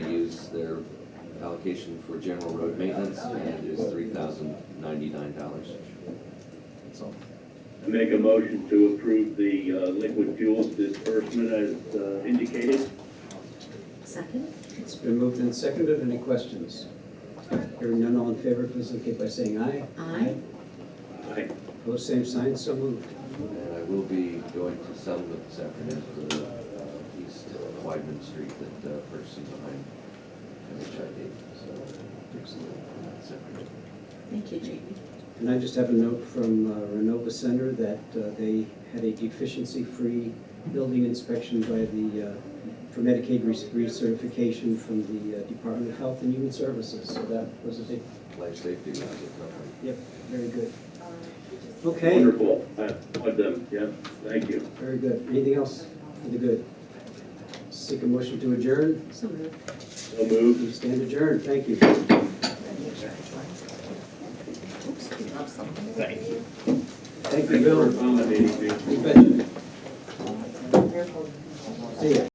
application for general road maintenance and is three thousand ninety-nine dollars. I Make a motion to approve the uh, liquid fuels disbursement as uh, indicated. Second? It's been moved and seconded. Any questions? Hearing none, all in favor, please indicate by saying aye. Aye. Aye. Opposed, same sign, so moved. And I will be going to settlement this afternoon for the uh, East Wyman Street that uh, person behind MHID, so. that's it. Thank you, Jamie. And I just have a note from uh, Renova Center that uh, they had a deficiency-free building inspection by the, uh, for Medicaid res- recertification from the uh, Department of Health and Human Services. So that was a big, Life safety, not the company. yep, very good. Okay, Wonderful. I applaud them. Yeah, thank you. very good. Anything else for the good? Seek a motion to adjourn. So moved. So moved. We stand adjourned. Thank you. Oops, we lost something. Thank you. Thank you, Thank you for Bill. accommodating me. You betcha. See ya.